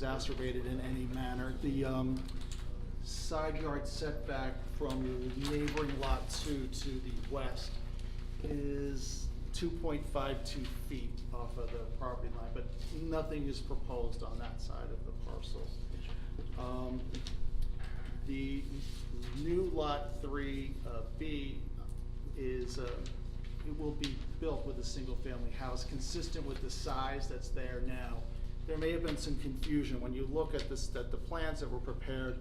exacerbated in any manner. The um, side yard setback from neighboring lot two to the west is 2.52 feet off of the property line, but nothing is proposed on that side of the parcel. Um, The new lot three uh, B is, uh, it will be built with a single-family house, consistent with the size that's there now. There may have been some confusion, when you look at this, that the plans that were prepared,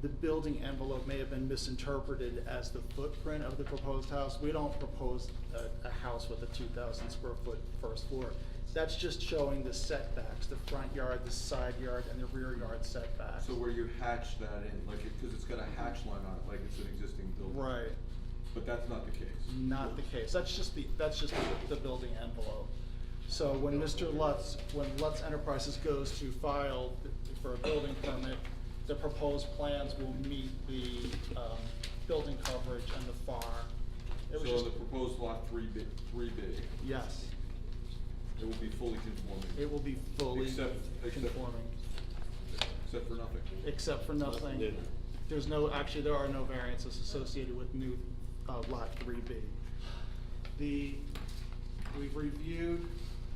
the building envelope may have been misinterpreted as the footprint of the proposed house. We don't propose a, a house with a two thousand square foot first floor. That's just showing the setbacks, the front yard, the side yard, and the rear yard setbacks. So where you hatch that in, like, because it's got a hatch line on it, like it's an existing building. Right, But that's not the case. not the case, that's just the, that's just the, the building envelope. So when Mr. Lutz, when Lutz Enterprises goes to file for a building permit, the proposed plans will meet the, um, building coverage and the FAR. It was So just- the proposed lot three B, three B, Yes, it will be fully conforming. it will be fully Except- except- conforming, Except for nothing. except for nothing. new. There's no, actually, there are no variances associated with new, uh, lot three B. The, we've reviewed,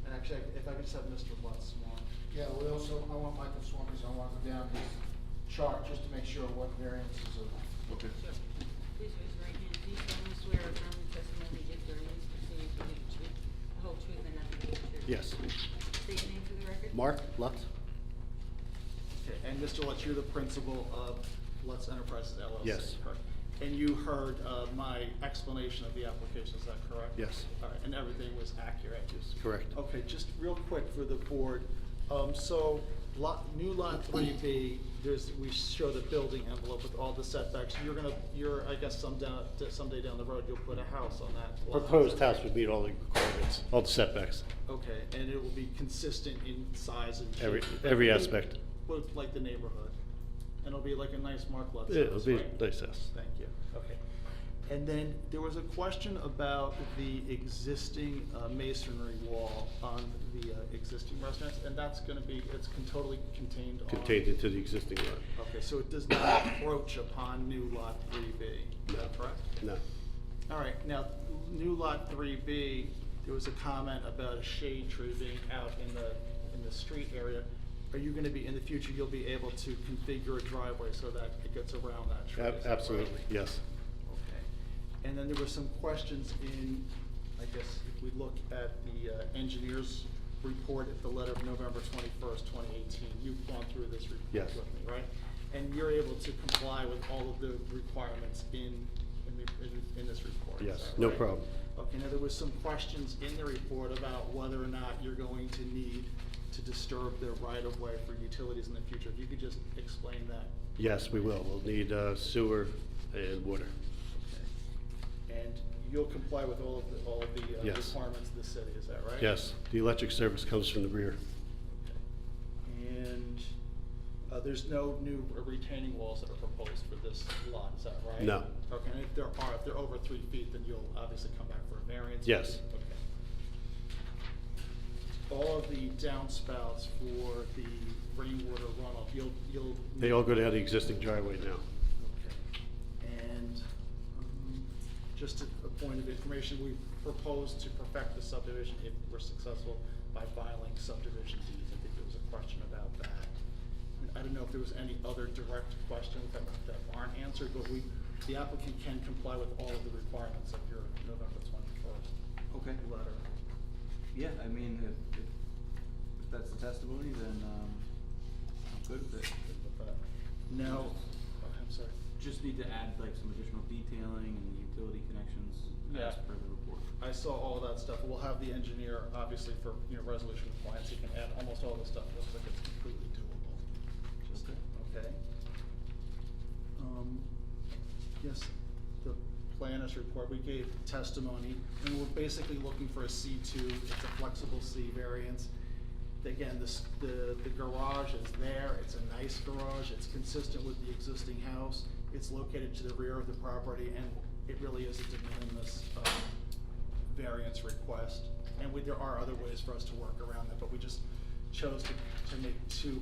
and actually, if I could just have Mr. Lutz sworn. Yeah, we also, I want Michael Swan, because I want to go down his chart just to make sure what variances are. Okay. Sure. Please raise your right hand. Do you solemnly swear or affirm the testimony you give during these proceedings will be the truth, the whole truth, and nothing but the truth? Yes. State your name for the record. Mark Lutz? Okay, and Mr. Lutz, you're the principal of Lutz Enterprises LLC. Yes. correct? And you heard, uh, my explanation of the application, is that correct? Yes. All right, and everything was accurate? Yes, correct. Okay, just real quick for the board, um, so lot, new lot three B, there's, we show the building envelope with all the setbacks. You're gonna, you're, I guess some down, someday down the road, you'll put a house on that lot. Proposed house would meet all the requirements, all the setbacks, Okay, and it will be consistent in size and shape? every, every aspect. With like the neighborhood, and it'll be like a nice Mark Lutz It'll house, be right? a nice house. Thank you, okay. And then there was a question about the existing uh, masonry wall on the uh, existing residence, and that's gonna be, it's con- totally contained on. Contained into the existing lot. Okay, so it does not approach upon new lot three B, is that No. correct? No, All right, now, new lot three B, there was a comment about a shade tree being out in the, in the street area. Are you gonna be, in the future, you'll be able to configure a driveway so that it gets around that tree? Ab- is that right? absolutely, yes. Okay, and then there were some questions in, I guess, if we look at the uh, engineer's report at the letter of November twenty-first, twenty eighteen, you've gone through this report Yes. with me, right? And you're able to comply with all of the requirements in, in the, in, in this report, is Yes, that no right? problem. Okay, now there was some questions in the report about whether or not you're going to need to disturb the right-of-way for utilities in the future. If you could just explain that Yes, we will. We'll need uh, sewer and water. And you'll comply with all of the, all of the uh, Yes. requirements of the city, is that right? Yes, the electric service comes from the rear. And uh, there's no new retaining walls that are proposed for this lot, is that right? No. Okay, and if there are, if they're over three feet, then you'll obviously come back for a variance? Yes. Okay. All of the downspouts for the rainwater runoff, you'll, you'll. They all go down the existing driveway now. Okay, And um, just a a point of information, we propose to perfect the subdivision if we're successful by filing subdivision deeds. I think there was a question about that. And I don't know if there was any other direct questions that that aren't answered, but we, the applicant can comply with all of the requirements of your November twenty-first Okay. letter. Yeah, I mean, if, if, if that's the testimony, then, um, I'm good with it. Good with that. Now, oh, I'm sorry. Just need to add like some additional detailing and utility connections as Yeah. per the report. I saw all of that stuff. We'll have the engineer, obviously, for, you know, resolution compliance, he can add almost all the stuff, looks like it's completely doable. Just, Okay. okay? Um, yes, the planners report, we gave testimony, and we're basically looking for a C two, it's a flexible C variance. Again, this, the, the garage is there, it's a nice garage, it's consistent with the existing house, it's located to the rear of the property, and it really is a de minimis, um, variance request, and we, there are other ways for us to work around that, but we just chose to, to make two